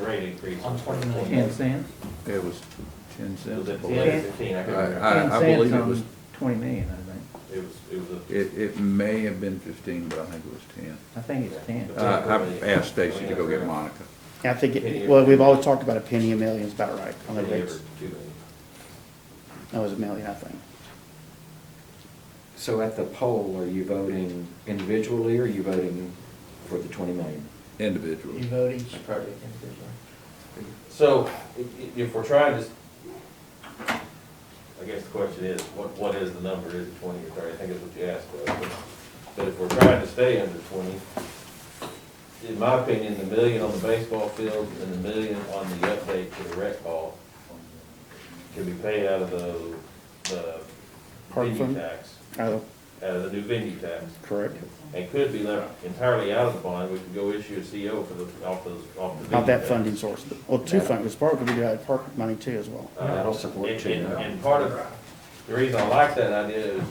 rate increase. On 29. Ten cents? It was ten Was cents. it I ten or believe. fifteen? I I, can't remember. I- I believe it was, Ten cents on twenty million, I think. Ah. It was, it was a. it, it may have been fifteen, but I think it was ten. I think it's ten. Uh, I've asked Stacy to go get Monica. I think, it- well, we've always talked about a penny a million is about right on the penny rates. or two million. That was a million, I think. So at the poll, are you voting individually, or are you voting for the 20 million? Individually. You vote each. Probably So, i- i- if we're trying to, s- I guess the question is, what, what is the number, is it twenty or thirty, I think is what you asked, Doug. But if we're trying to stay under twenty, in my opinion, the million on the baseball field and the million on the update to the rec hall can be paid out of the, the Park venue fund? tax, Oh, out of the new venue tax correct. and could be left entirely out of the bond, we could go issue a CO for the, off those, off the. Not that venue tax. funding source. Well, two fundings, part could be out of park money too as well. Uh, That'll support and- you. And, and part of, the reason I like that idea is,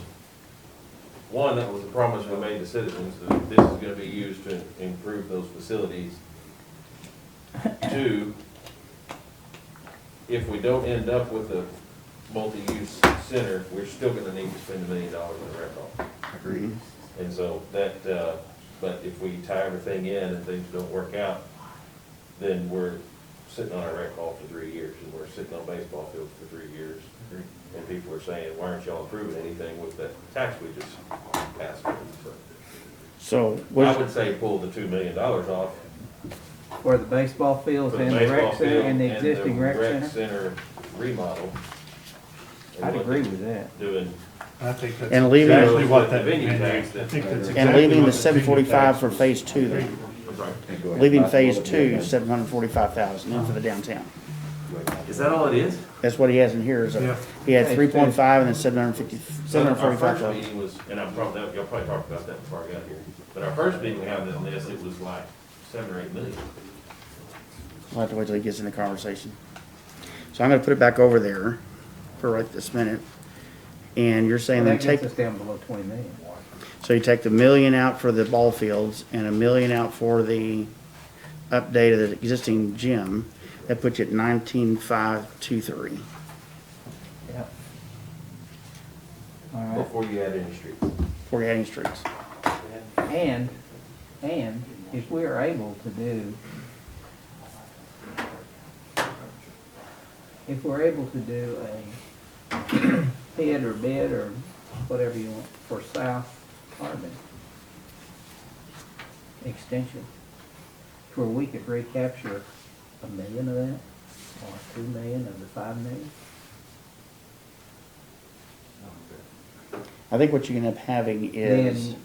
one, that was a promise we made to citizens, that this is gonna be used to improve those facilities. Two, if we don't end up with a multi-use center, we're still gonna need to spend a million dollars on the rec hall. Agreed. And so that, uh, but if we tie everything in and things don't work out, then we're sitting on our rec hall for three years, and we're sitting on baseball fields for three years. And people are saying, why aren't y'all improving anything with that tax we just passed? So So, I what, would say pull the two million dollars off. Where the baseball fields for the and the baseball rec center field and the existing rec center. center remodel. and I'd what agree they're with that. Doing, I think that's. And leaving- Exactly what that. The venue I tax that- think that's and And exactly leaving what the venue seven forty-five tax for was. phase two, And go ahead. leaving Possible phase to be two, okay. seven hundred forty-five thousand in for the downtown. is that all it is? That's what he has in here is, Yeah. a- he had Phase two. three point five and then seven hundred fifty, So seven hundred our forty-five first thousand. meeting was, and I'm probably, y'all probably talked about that before I got here, but our first meeting we had on this, it was like seven or eight million. I'll have to wait till he gets in the conversation. So I'm gonna put it back over there for right this minute. And you're saying then That take, gets us down below twenty million. so you take the million out for the ball fields and a million out for the update of the existing gym. That puts you at nineteen five two three. Yep. All right. Before you add any streets. for adding streets. And, and if we are able to do, if we're able to do a bid or bid or whatever you want for South Harbin extension, to where we could recapture a million of that, or two million of the five million, I think what you end up having is, then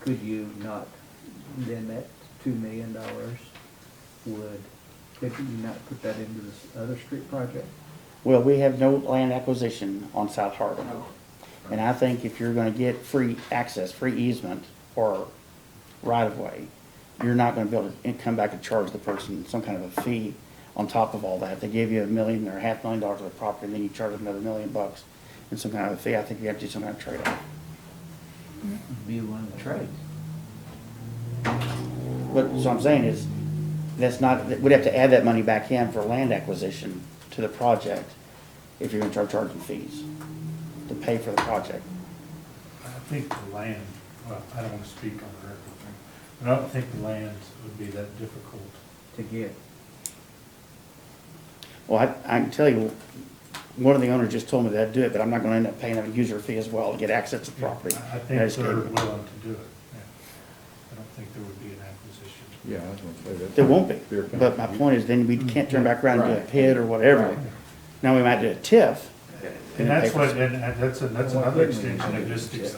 could you not, then that two million dollars would, could you not put that into this other street project? well, we have no land acquisition on South Harbor. And I think if you're gonna get free access, free easement or right of way, you're not gonna be able to come back and charge the person some kind of a fee on top of all that. They give you a million or a half million dollars of the property and then you charge them another million bucks and some kind of a fee. I think you have to do some kind of trade-off. Be one of the trades. But, so I'm saying is, that's not, we'd have to add that money back in for land acquisition to the project if you're gonna start charging fees to pay for the project. I think the land, well, I don't wanna speak on the record thing, but I don't think the land would be that difficult. To get. Well, I, I can tell you, one of the owners just told me that I'd do it, but I'm not gonna end up paying a user fee as well to get access to the property. I I I think just they're gave willing it. to do it, yeah. I don't think there would be an acquisition. Yeah, I was gonna say that. There won't be, but my point is then we Mm-hmm. can't turn back around and do a Right. PID or whatever. Now, we might do a TIF, And that's what, and and that's, a- that's What another didn't we extension of do? just ex- So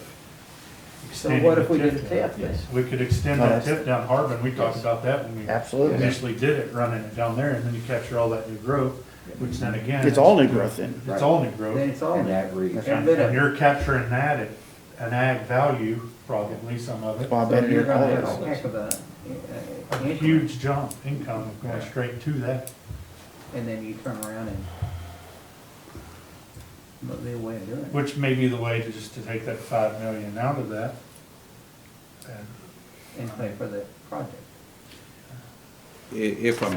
extending what if we the did a TIF. TIF then? We could extend No, that that's- tip down Harbin, we talked about that when we absolutely. initially did it, running it down there, and then you capture all that new growth, which then again. It's all new growth then. It's all new growth. Then it's all, And there. that reads, Yeah. And and you're capturing that at an ag value, probably some of it. Well, I so bet you're you're all gonna have of a it. heck of a. uh, A increment. huge jump income going straight to that. And then you turn around and. But the way of doing it. Which may be the way to just to take that five million out of that. And and pay for the project. I- If I'm